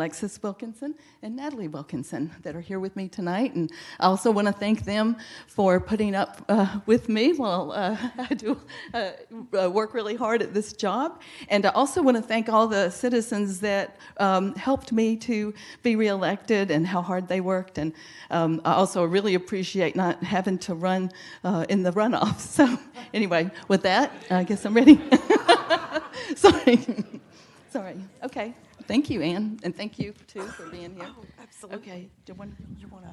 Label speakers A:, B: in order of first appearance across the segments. A: Alexis Wilkinson and Natalie Wilkinson that are here with me tonight. And I also want to thank them for putting up uh, with me while uh, I do uh, uh, work really hard at this job. And I also want to thank all the citizens that um, helped me to be reelected and how hard they worked. And um, I also really appreciate not having to run uh, in the runoff. So, anyway, with that, I guess I'm ready. Sorry. Sorry. Okay. Thank you, Anne, and thank you too for being here.
B: Absolutely.
A: Okay. Do one,
B: Oh, You want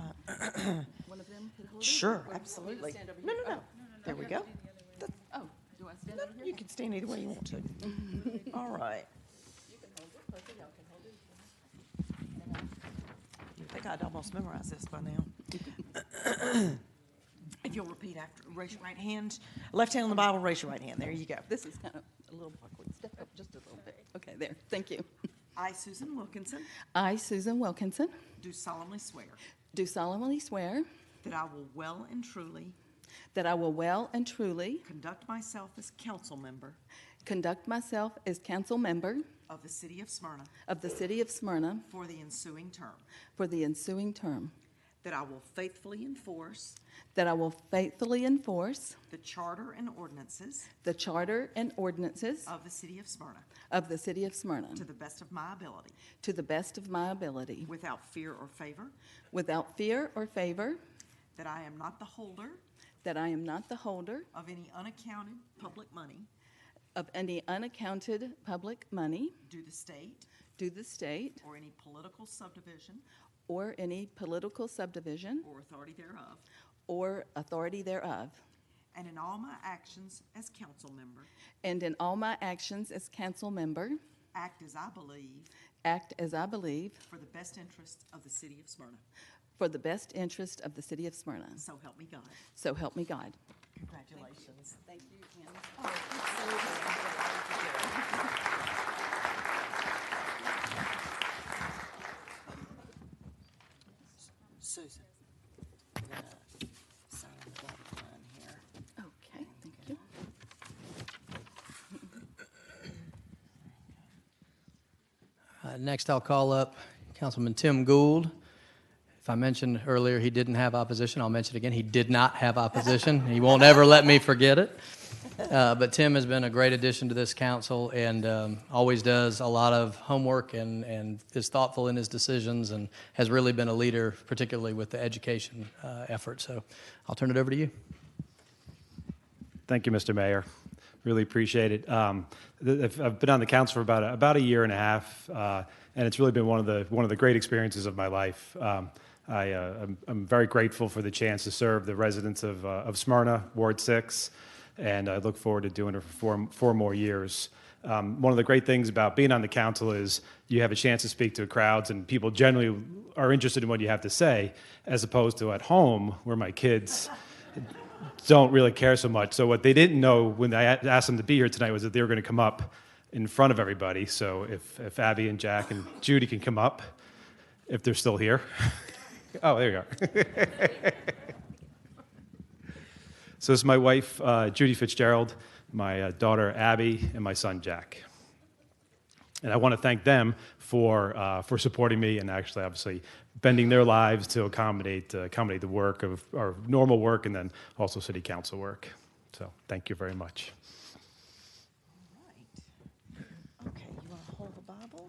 B: to?
A: one of them? hit hold it?
B: Uh, Sure,
A: Or- or you
B: absolutely.
A: stand over
B: No,
A: here?
B: no, no. There we go.
A: Oh, oh, do I stand
B: No,
A: over here?
B: You can stand either way you want to. All right. You think I'd almost memorize this by now. If you'll repeat after, raise your right hand, left hand on the Bible, raise your right hand. There you go.
A: This is kind of a little awkward. Step up just a little bit. Okay, there. Thank you.
B: I, Susan Wilkinson,
A: I, Susan Wilkinson,
B: do solemnly swear
A: do solemnly swear
B: that I will well and truly
A: that I will well and truly
B: conduct myself as council member
A: conduct myself as council member
B: of the city of Smyrna
A: of the city of Smyrna
B: for the ensuing term,
A: for the ensuing term,
B: that I will faithfully enforce
A: that I will faithfully enforce
B: The charter and ordinances
A: the charter and ordinances
B: of the city of Smyrna
A: of the city of Smyrna
B: to the best of my ability,
A: to the best of my ability,
B: without fear or favor,
A: without fear or favor,
B: that I am not the holder
A: that I am not the holder
B: of any unaccounted public money
A: of any unaccounted public money
B: due the state
A: due the state
B: or any political subdivision
A: or any political subdivision
B: or authority thereof,
A: or authority thereof,
B: and in all my actions as council member,
A: and in all my actions as council member,
B: act as I believe
A: act as I believe
B: for the best interests of the city of Smyrna.
A: for the best interest of the city of Smyrna.
B: So help me God.
A: So help me God.
B: Congratulations.
A: Thank you,
B: Susan. I'm gonna sign the dotted line here.
A: Okay, thank you.
C: Uh, Next, I'll call up Councilman Tim Gould. If I mentioned earlier he didn't have opposition, I'll mention it again. He did not have opposition. He won't ever let me forget it. Uh, But Tim has been a great addition to this council and um, always does a lot of homework and and is thoughtful in his decisions and has really been a leader, particularly with the education uh, effort. So I'll turn it over to you.
D: Thank you, Mr. Mayor. Really appreciate it. Um, th- I've I've been on the council for about a, about a year and a half, uh, and it's really been one of the one of the great experiences of my life. Um, I, uh, I'm, I'm very grateful for the chance to serve the residents of, uh, of Smyrna, Ward 6, and I look forward to doing it for four, four more years. Um, one of the great things about being on the council is you have a chance to speak to crowds, and people generally are interested in what you have to say, as opposed to at home, where my kids don't really care so much. So what they didn't know when I a- asked them to be here tonight was that they were going to come up in front of everybody. So if, if Abby and Jack and Judy can come up, if they're still here. oh, there you are. so this is my wife, uh, Judy Fitzgerald, my uh, daughter, Abby, and my son, Jack. And I want to thank them for, uh, for supporting me and actually, obviously, bending their lives to accommodate, uh, accommodate the work of our normal work and then also city council work. So thank you very much.
B: Right. Okay, you want to hold the Bible?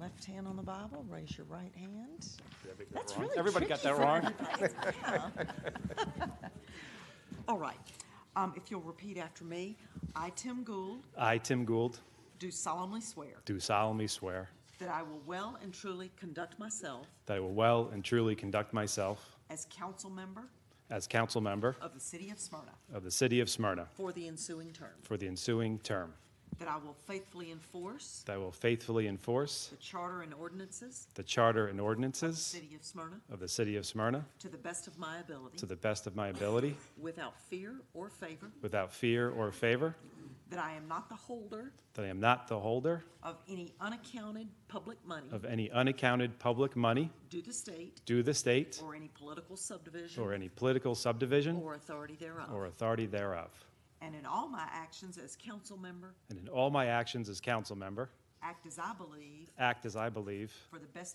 B: Left hand on the Bible, raise your right hand. That's really
D: Everybody got
B: tricky
D: that
B: for
D: wrong?
B: everybody. Yeah. All right. Um, If you'll repeat after me, I, Tim Gould,
D: I, Tim Gould,
B: do solemnly swear
D: do solemnly swear
B: that I will well and truly conduct myself
D: that I will well and truly conduct myself
B: as council member
D: as council member
B: of the city of Smyrna
D: of the city of Smyrna
B: for the ensuing term,
D: for the ensuing term,
B: that I will faithfully enforce
D: that I will faithfully enforce
B: the charter and ordinances
D: the charter and
B: of the
D: ordinances
B: city of Smyrna
D: of the city of Smyrna
B: to the best of my ability.
D: to the best of my ability,
B: Without fear or favor.
D: without fear or favor,
B: That I am not the holder
D: that I am not the holder
B: of any unaccounted public money
D: of any unaccounted public money
B: due to state
D: due the state
B: or any political
D: or
B: subdivision
D: any political subdivision
B: or authority
D: or
B: thereof.
D: authority thereof.
B: And in all my actions as council member,
D: And in all my actions as council member, act as I believe,
B: act as I believe,
D: for the best